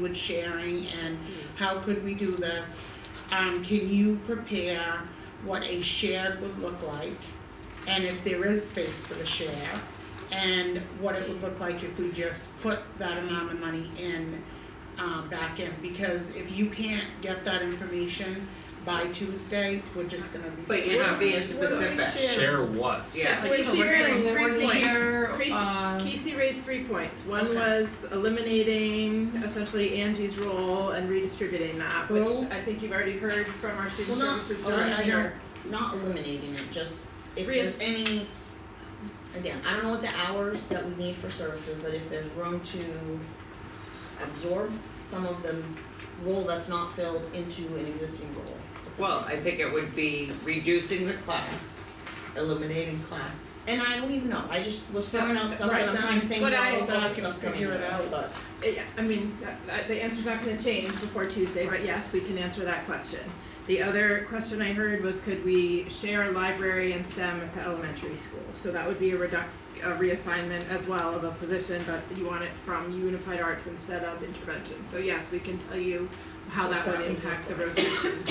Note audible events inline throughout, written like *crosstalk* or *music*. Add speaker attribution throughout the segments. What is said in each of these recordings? Speaker 1: with sharing and how could we do this? Um, can you prepare what a shared would look like? And if there is space for the share, and what it would look like if we just put that amount of money in, um, back in, because if you can't get that information by Tuesday, we're just gonna be.
Speaker 2: But you're not being
Speaker 1: screwed.
Speaker 2: specific.
Speaker 3: Share what?
Speaker 2: Yeah.
Speaker 4: Wait,
Speaker 5: Casey
Speaker 4: we're
Speaker 5: raised
Speaker 4: gonna
Speaker 5: three
Speaker 4: award
Speaker 5: points.
Speaker 4: share,
Speaker 5: Casey-
Speaker 4: um,
Speaker 5: Casey raised three points. One
Speaker 4: Okay.
Speaker 5: was eliminating essentially Angie's role and redistributing that, which
Speaker 1: Well-
Speaker 5: I think you've already heard from our student
Speaker 2: Well, not-
Speaker 5: services
Speaker 2: oh, I
Speaker 5: director.
Speaker 2: know. not eliminating it, just if there's
Speaker 5: Reass-
Speaker 2: any, again, I don't know what the hours that we need for services, but if there's room to absorb some of the role that's not filled into an existing role. if that
Speaker 6: Well,
Speaker 2: makes
Speaker 6: I
Speaker 2: sense.
Speaker 6: think it would be reducing the class, eliminating class.
Speaker 2: And I don't even know, I just was throwing out stuff
Speaker 5: Right,
Speaker 2: and I'm trying to think
Speaker 5: but
Speaker 2: about
Speaker 5: I-
Speaker 2: all
Speaker 5: but I
Speaker 2: that
Speaker 5: can
Speaker 2: stuff's going
Speaker 1: figure
Speaker 2: into
Speaker 1: it
Speaker 2: this,
Speaker 1: out.
Speaker 2: but
Speaker 5: Uh, yeah, I mean, that, that, the answer's not gonna change before Tuesday, but yes, we can answer that question. The other question I heard was could we share library and STEM at the elementary school? So that would be a reduc, a reassignment as well of a position, but you want it from unified arts instead of intervention. So yes, we can tell you how that would impact the rotation,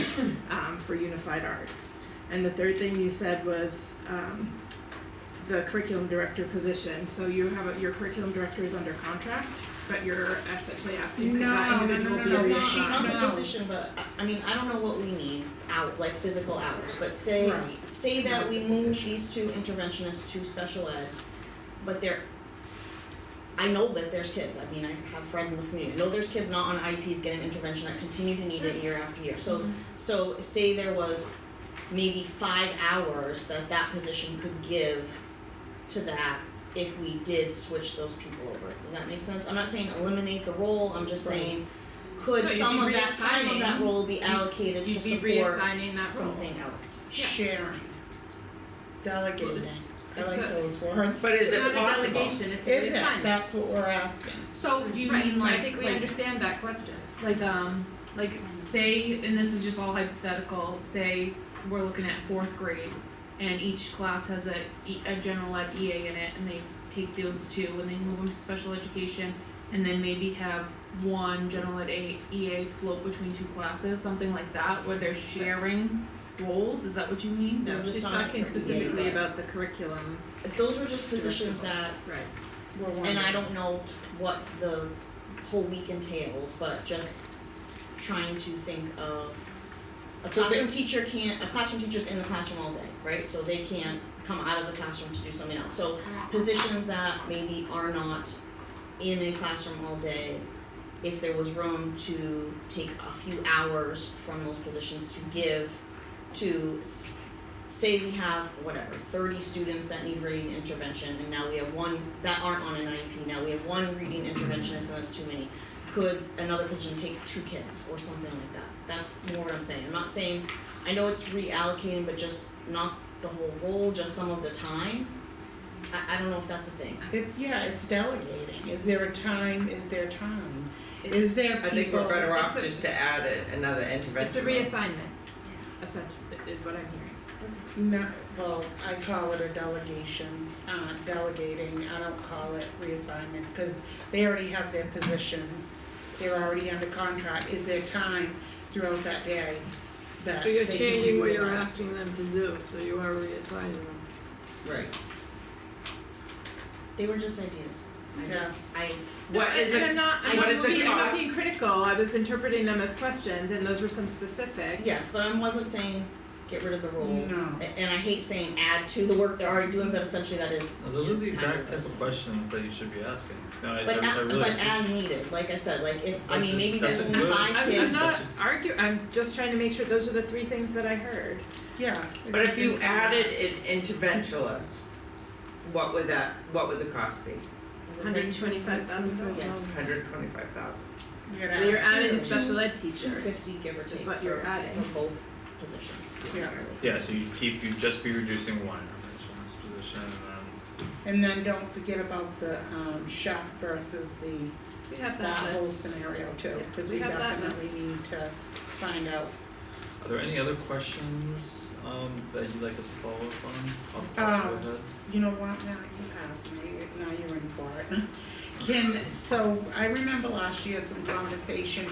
Speaker 5: um, for unified arts. And the third thing you said was, um, the curriculum director position, so you have, a- your curriculum director is under contract, but you're essentially asking could
Speaker 1: No,
Speaker 5: that
Speaker 1: no,
Speaker 5: individual
Speaker 1: no,
Speaker 5: be
Speaker 1: no,
Speaker 2: No,
Speaker 1: no,
Speaker 5: reassigned?
Speaker 2: she's not in
Speaker 1: No.
Speaker 2: a position, but I, I mean, I don't know what we need out, like physical hours, but say,
Speaker 1: Right.
Speaker 2: say that we move these two interventionists to special ed, but they're, I know that there's kids, I mean, I have friends in the community, I know there's kids not on IEPs getting intervention that continue to need it year after year, so, so say there was maybe five hours that that position could give to that if we did switch those people over, does that make sense? I'm not saying eliminate the role, I'm just
Speaker 5: Right.
Speaker 2: saying could
Speaker 4: No, you'd
Speaker 2: some
Speaker 4: be
Speaker 2: of that time of that
Speaker 4: reassigning-
Speaker 2: role be allocated to
Speaker 4: You'd be
Speaker 2: support
Speaker 4: reassigning that role.
Speaker 2: something else?
Speaker 4: Yeah.
Speaker 1: Sharing, delegating,
Speaker 6: it's-
Speaker 1: I like
Speaker 6: it's a-
Speaker 1: those words.
Speaker 6: But is it possible?
Speaker 5: It's not a delegation, it's a
Speaker 1: Is it,
Speaker 5: reassignment.
Speaker 1: that's what we're asking.
Speaker 7: So do you
Speaker 4: Right,
Speaker 7: mean
Speaker 4: I think
Speaker 7: like
Speaker 4: we
Speaker 7: like,
Speaker 4: understand that question.
Speaker 7: like um like say and this is just all hypothetical, say we're looking at fourth grade and each class has a E- a general ed EA in it and they take those two and they move them to special education and then maybe have one general ed A- EA float between two classes, something like that, where they're sharing roles, is that what you mean?
Speaker 2: No,
Speaker 4: She's
Speaker 2: just not
Speaker 4: talking
Speaker 2: for EA,
Speaker 4: specifically
Speaker 2: right.
Speaker 4: about the curriculum,
Speaker 2: If Those were just positions that,
Speaker 4: right.
Speaker 1: We're
Speaker 2: and I
Speaker 1: wondering.
Speaker 2: don't know what the whole week entails, but just trying to think of a
Speaker 6: So they-
Speaker 2: classroom teacher can't, a classroom teacher's in the classroom all day, right? So they can't come out of the classroom to do something else. So positions that maybe are not in a classroom all day, if there was room to take a few hours from those positions to give to s- say we have whatever 30 students that need reading intervention and now we have one that aren't on an IEP now we have one reading interventionist and that's too many could another position take two kids or something like that that's more what I'm saying I'm not saying I know it's reallocating but just not the whole role just some of the time I, I don't know if that's a thing
Speaker 1: It's, yeah, it's delegating, is there a time, is there time, is there people?
Speaker 6: I think we're better off
Speaker 4: It's a-
Speaker 6: just to add it, another
Speaker 4: It's a
Speaker 6: intervention.
Speaker 4: reassignment, essentially, is what I'm hearing.
Speaker 1: No, well, I call it a delegation, uh, delegating, I don't call it reassignment, cause they already have their positions. They're already under contract, is there time throughout that day that
Speaker 8: So
Speaker 1: they
Speaker 8: you're
Speaker 1: can be
Speaker 8: changing what you're
Speaker 1: realized?
Speaker 8: asking them to do, so you are reassigning them.
Speaker 6: Right.
Speaker 2: they were just ideas I
Speaker 1: Yes.
Speaker 2: just I
Speaker 6: What is
Speaker 4: and
Speaker 6: it,
Speaker 4: I'm not, I'm
Speaker 6: what
Speaker 4: not
Speaker 6: is it
Speaker 4: being, I'm not
Speaker 6: cost?
Speaker 4: being critical, I was interpreting them as questions, and those were some specifics.
Speaker 2: yes but I wasn't saying get rid of the role
Speaker 1: No.
Speaker 2: A- and I hate saying add to the work they're already doing but essentially that is
Speaker 3: No, Those are the
Speaker 2: Just kind of
Speaker 3: exact type
Speaker 2: those.
Speaker 3: of questions that you should be asking. No, I, I,
Speaker 2: But,
Speaker 3: I
Speaker 2: a-
Speaker 3: really.
Speaker 2: but as needed, like I said, like if, I
Speaker 3: Like
Speaker 2: mean,
Speaker 3: this-
Speaker 2: maybe there's
Speaker 3: that's a
Speaker 2: only
Speaker 3: good-
Speaker 2: five
Speaker 4: I'm,
Speaker 2: kids.
Speaker 4: I'm not
Speaker 3: That's
Speaker 4: argue, I'm just trying to make sure those are the three things that I heard.
Speaker 1: Yeah.
Speaker 6: but if you added an interventionist, what would that, what would the cost be?
Speaker 4: Hundred and twenty-five thousand for
Speaker 2: Yeah.
Speaker 6: Hundred twenty-five thousand.
Speaker 1: You're
Speaker 4: Well,
Speaker 1: gonna
Speaker 4: you're
Speaker 1: ask,
Speaker 4: adding
Speaker 2: two-
Speaker 4: a special ed
Speaker 2: Two
Speaker 4: teacher.
Speaker 2: fifty, give or
Speaker 4: Is
Speaker 2: take,
Speaker 4: what
Speaker 2: for,
Speaker 4: you're adding.
Speaker 2: for both positions.
Speaker 1: Yeah.
Speaker 3: Yeah, so you keep, you just be reducing one intervention in this position and then.
Speaker 1: and then don't forget about the, um, shop versus the,
Speaker 4: We have
Speaker 1: that
Speaker 4: that
Speaker 1: whole
Speaker 4: list.
Speaker 1: scenario too,
Speaker 4: Yeah,
Speaker 1: cause
Speaker 4: we
Speaker 1: we
Speaker 4: have that
Speaker 1: definitely need to find out.
Speaker 3: Are there any other questions, um, that you'd like us to follow up on, off the top of your head?
Speaker 1: *laughs* You know what, now you asked me, now you're in for it. Can, so I remember last year some conversation